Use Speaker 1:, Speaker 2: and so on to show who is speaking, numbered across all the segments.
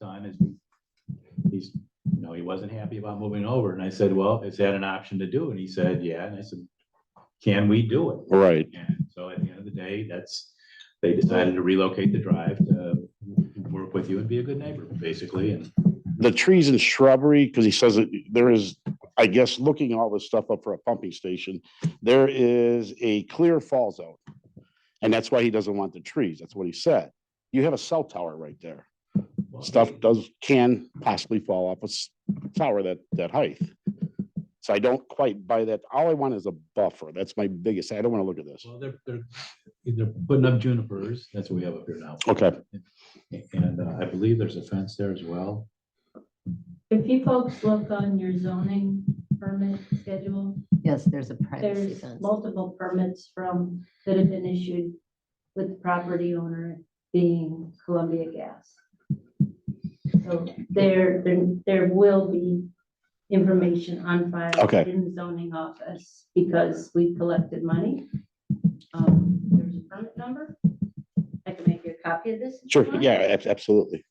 Speaker 1: done is he's, you know, he wasn't happy about moving over. And I said, well, is that an option to do? And he said, yeah. And I said, can we do it?
Speaker 2: Right,
Speaker 1: And so at the end of the day, that's, they decided to relocate the drive to work with you and be a good neighbor, basically. And
Speaker 2: the trees and shrubbery, because he says that there is, I guess, looking all this stuff up for a pumping station, there is a clear fall zone. And that's why he doesn't want the trees. That's what he said. You have a cell tower right there. Stuff does, can possibly fall off a s- tower that, that height. So I don't quite buy that. All I want is a buffer. That's my biggest, I don't want to look at this.
Speaker 1: Well, they're, they're, they're putting up junipers. That's what we have up here now.
Speaker 2: Okay,
Speaker 1: And uh, I believe there's a fence there as well.
Speaker 3: If you folks look on your zoning permit schedule,
Speaker 4: Yes, there's a privacy
Speaker 3: there's
Speaker 4: fence.
Speaker 3: multiple permits from, that have been issued with the property owner being Columbia Gas. So there, there, there will be information on file.
Speaker 2: Okay.
Speaker 3: In the zoning office, because we collected money. Um, There's a permit number. I can make you a copy of this. if you
Speaker 2: sure,
Speaker 3: want.
Speaker 2: yeah, ab- absolutely.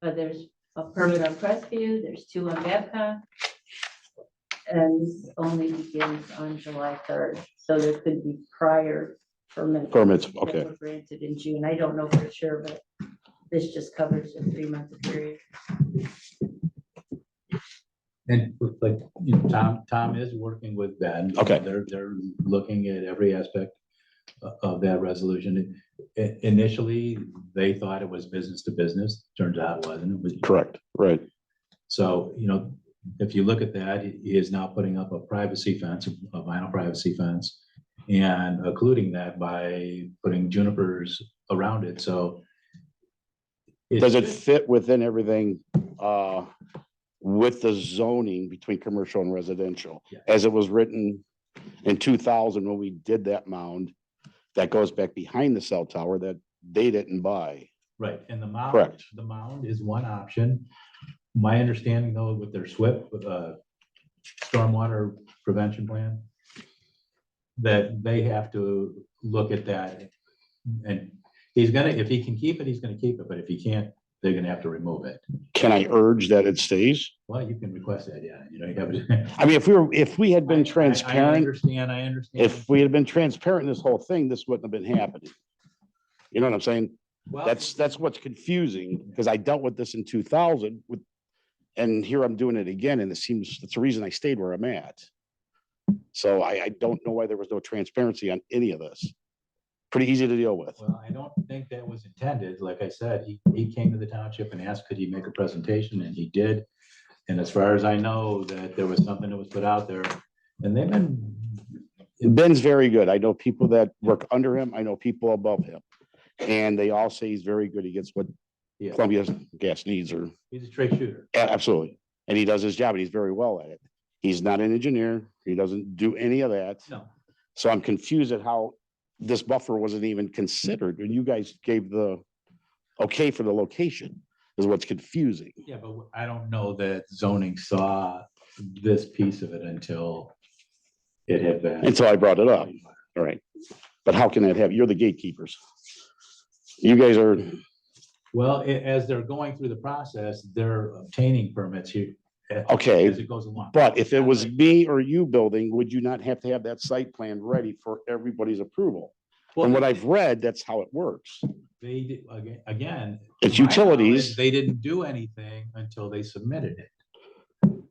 Speaker 3: But there's a permit on Crestview, there's two on Babcock. And this only begins on July third, so there could be prior permits.
Speaker 2: Permits,
Speaker 3: that
Speaker 2: okay.
Speaker 3: were Granted in June, I don't know for sure, but this just covers a three-month period.
Speaker 1: And like, you know, Tom, Tom is working with Ben.
Speaker 2: Okay.
Speaker 1: They're, they're looking at every aspect o- of that resolution. I- Initially, they thought it was business to business. Turns out it wasn't. It was
Speaker 2: Correct, right.
Speaker 1: So, you know, if you look at that, he he is now putting up a privacy fence, a vinyl privacy fence, and occluding that by putting junipers around it, so. it's-
Speaker 2: Does it fit within everything uh, with the zoning between commercial and residential?
Speaker 1: Yeah.
Speaker 2: As it was written in two thousand when we did that mound, that goes back behind the cell tower that they didn't buy.
Speaker 1: Right, and the mound.
Speaker 2: Correct.
Speaker 1: The mound is one option. My understanding though, with their SWIP, with uh stormwater prevention plan, that they have to look at that. And he's gonna, if he can keep it, he's gonna keep it, but if he can't, they're gonna have to remove it.
Speaker 2: Can I urge that it stays?
Speaker 1: Well, you can request that, yeah, you know, you have.
Speaker 2: I mean, if we were, if we had
Speaker 1: I- I-
Speaker 2: been
Speaker 1: I
Speaker 2: transparent,
Speaker 1: understand, I understand.
Speaker 2: if we had been transparent in this whole thing, this wouldn't have been happening. You know what I'm saying?
Speaker 1: Well,
Speaker 2: That's, that's what's confusing, because I dealt with this in two thousand with, and here I'm doing it again, and it seems, that's the reason I stayed where I'm at. So I, I don't know why there was no transparency on any of this. Pretty easy to deal with.
Speaker 1: Well, I don't think that was intended. Like I said, he, he came to the township and asked, could he make a presentation? And he did. And as far as I know, that there was something that was put out there and they've been,
Speaker 2: Ben's very good. I know people that work under him. I know people above him. And they all say he's very good. He gets what
Speaker 1: Yeah.
Speaker 2: Columbia Gas needs or,
Speaker 1: he's a straight shooter.
Speaker 2: a- absolutely. And he does his job and he's very well at it. He's not an engineer. He doesn't do any of that.
Speaker 1: No,
Speaker 2: So I'm confused at how this buffer wasn't even considered and you guys gave the okay for the location is what's confusing.
Speaker 1: yeah, but I don't know that zoning saw this piece of it until it had been.
Speaker 2: Until I brought it up. All right. But how can that happen? You're the gatekeepers. You guys are,
Speaker 1: Well, a- as they're going through the process, they're obtaining permits here. a-
Speaker 2: okay,
Speaker 1: As it goes along.
Speaker 2: but if it was me or you building, would you not have to have that site plan ready for everybody's approval? From what I've read, that's how it works.
Speaker 1: They, did- aga- again.
Speaker 2: It's
Speaker 1: to my knowledge,
Speaker 2: utilities.
Speaker 1: They didn't do anything until they submitted it.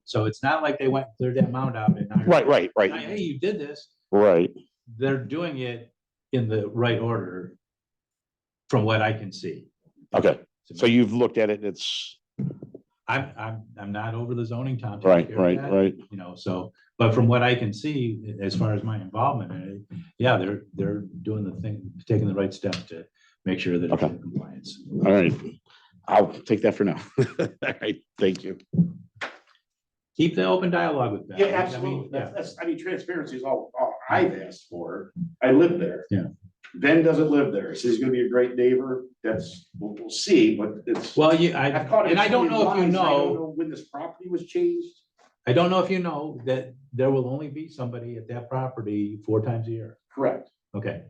Speaker 1: So it's not like they went, cleared that mound out and. now you're-
Speaker 2: Right, right,
Speaker 1: Now,
Speaker 2: right,
Speaker 1: Hey, you did this.
Speaker 2: right.
Speaker 1: They're doing it in the right order from what I can see.
Speaker 2: Okay. So you've looked at it. and It's
Speaker 1: I'm, I'm, I'm not over the zoning, Tom. take
Speaker 2: right,
Speaker 1: care of
Speaker 2: right,
Speaker 1: that,
Speaker 2: right.
Speaker 1: You know, so, but from what I can see, as far as my involvement, in it, yeah, they're, they're doing the thing, taking the right steps to make sure that it's
Speaker 2: Okay.
Speaker 1: in compliance.
Speaker 2: All right. I'll take that for now. All right, thank you.
Speaker 1: Keep the open dialogue with them.
Speaker 5: Yeah,
Speaker 1: I mean,
Speaker 5: absolutely.
Speaker 1: yeah.
Speaker 5: That's, that's, I mean, transparency is all, all I've asked for. I live there.
Speaker 1: Yeah.
Speaker 5: Ben doesn't live there. So he's gonna be a great neighbor. That's, we'll, we'll see, but it's.
Speaker 1: Well, you, I,
Speaker 5: I've caught it
Speaker 1: and I don't
Speaker 5: in
Speaker 1: know if you
Speaker 5: lies. I don't
Speaker 1: know,
Speaker 5: When this property was changed.
Speaker 1: I don't know if you know that there will only be somebody at that property four times a year.
Speaker 5: Correct.
Speaker 1: Okay.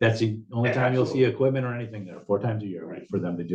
Speaker 1: That's the only time you'll see equipment or anything there, four times a year, right, for them to do